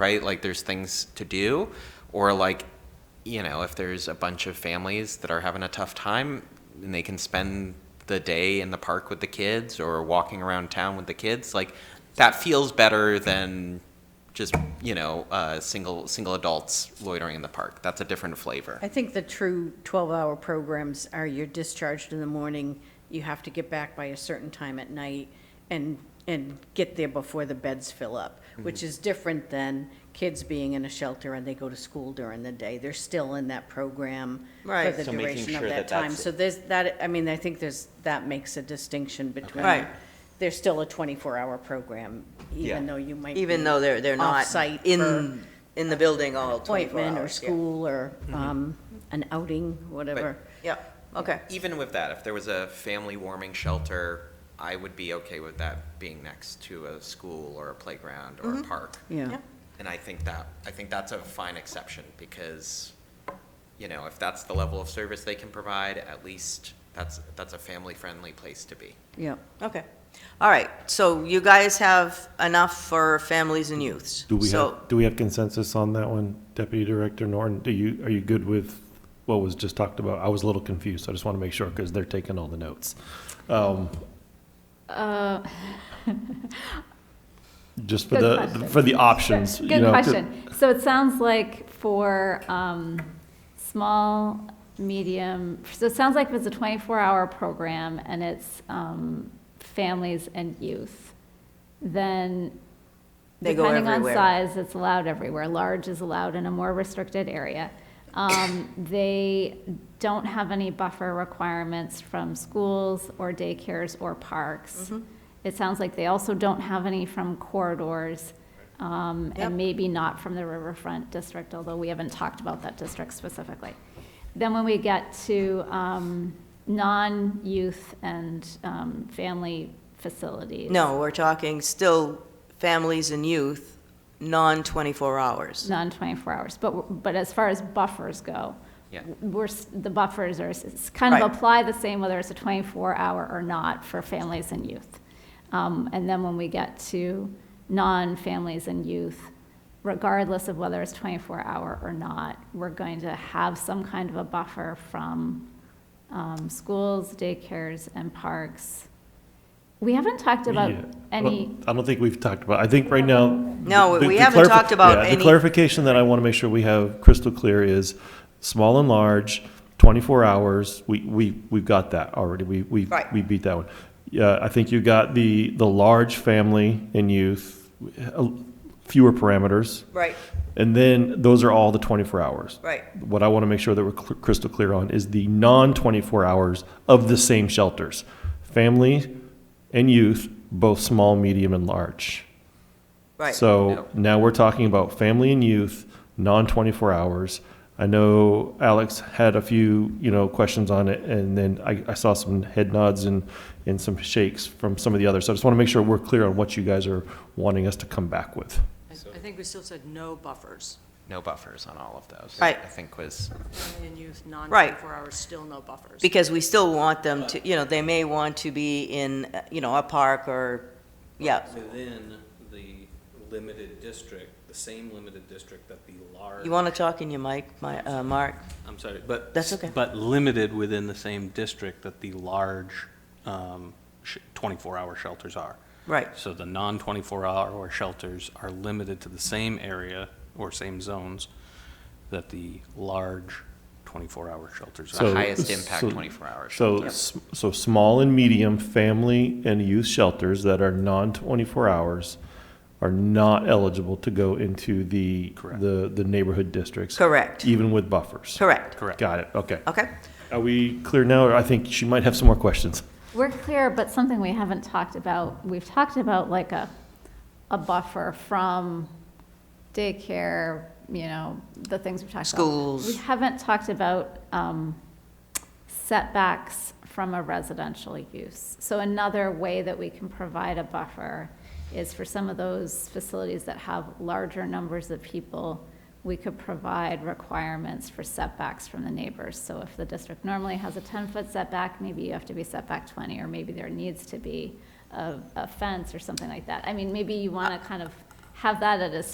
right? Like there's things to do, or like, you know, if there's a bunch of families that are having a tough time and they can spend the day in the park with the kids or walking around town with the kids, like that feels better than just you know uh, single single adults loitering in the park. That's a different flavor. I think the true 12-hour programs are you're discharged in the morning, you have to get back by a certain time at night, and, and get there before the beds fill up, Mm-hmm. which is different than kids being in a shelter and they go to school during the day. They're still in that program for Right. the So making duration of sure that that that's- time. So there's that, I mean, I think there's, that makes a distinction between. Right. There's still a 24-hour program, even Yeah. though you might Even be though they're, they're not off-site for- in, in the building all 24 appointment or hours, yeah. Mm-hmm. school or um, an outing, whatever. Yep, okay. Even with that, if there was a family warming shelter, I would be okay with that being next to a school or a playground or a park. Yeah. Yep. And I think that, I think that's a fine exception because, you know, if that's the level of service they can provide, at least that's, that's a family-friendly place to be. Yeah. Okay. All right, so you guys have enough for families and youths. Do we So- have, do we have consensus on that one, Deputy Director Norton? Do you, are you good with what was just talked about? I was a little confused, so I just want to make sure, because they're taking all the notes. Um, Uh, Just for Good the, question. for the options, you Good know, 'cause- question. So it sounds like for um, small, medium, so it sounds like if it's a 24-hour program and it's um, families and youth, then They go depending on everywhere. size, it's allowed everywhere. Large is allowed in a more restricted area. Um, They don't have any buffer requirements from schools or daycares or parks. Mm-hmm. It sounds like they also don't have any from corridors, um, Yep. and maybe not from the riverfront district, although we haven't talked about that district specifically. Then when we get to um, non-youth and um, family facilities. No, we're talking still families and youth, non-24 hours. non-24 hours, but, but as far as buffers go, Yeah. we're, s- the buffers are, s- it's kind of Right. apply the same whether it's a 24-hour or not for families and youth. Um, And then when we get to non-families and youth, regardless of whether it's 24-hour or not, we're going to have some kind of a buffer from um, schools, daycares, and parks. We haven't talked about Yeah. any, I don't think we've talked about, I think right now. No, the- we the haven't clarifi- talked about yeah, any- The clarification that I want to make sure we have crystal clear is small and large, twenty-four hours, we, we, we've got that already, we, we, Right. we beat that one. Yeah, I think you got the, the large family and youth, uh, fewer parameters. Right, And then those are all the twenty-four hours. right. What I want to make sure that we're cl- crystal clear on is the non-24 hours of the same shelters. Family and youth, both small, medium, and large. Right. So Yep. now we're talking about family and youth, non-24 hours. I know Alex had a few, you know, questions on it, and then I, I saw some head nods and, and some shakes from some of the others. So I just want to make sure we're clear on what you guys are wanting us to come back with. I I think we still said no buffers. No buffers on all of those. Right. I think was, Family and youth, Right. non-24 hours, still no buffers. Because we still want them to, you know, they may want to be in, uh, you know, a park or, yeah, Within the limited district, the same limited district that the large. you want to talk in your mic, my, uh, Mark? I'm sorry, but. That's okay. But limited within the same district that the large um, sh- 24-hour shelters are. Right, So the non-24 hour shelters are limited to the same area or same zones that the large 24 hour shelters The are. So- highest impact so- 24-hour So, s- so small and medium family and youth shelters that are non-24 hours are not eligible to go into the, Correct. the, the neighborhood districts. Correct. Even with buffers. correct. Correct. Got it, okay. Okay, Are we clear now, or I think she might have some more questions? We're clear, but something we haven't talked about, we've talked about like a, a buffer from daycare, you know, the things we've talked about. Schools. We haven't talked about um, setbacks from a residential use. So another way that we can provide a buffer is for some of those facilities that have larger numbers of people, we could provide requirements for setbacks from the neighbors. So if the district normally has a 10-foot setback, maybe you have to be setback 20, or maybe there needs to be a a fence or something like that. I mean, maybe you want to kind of have that at a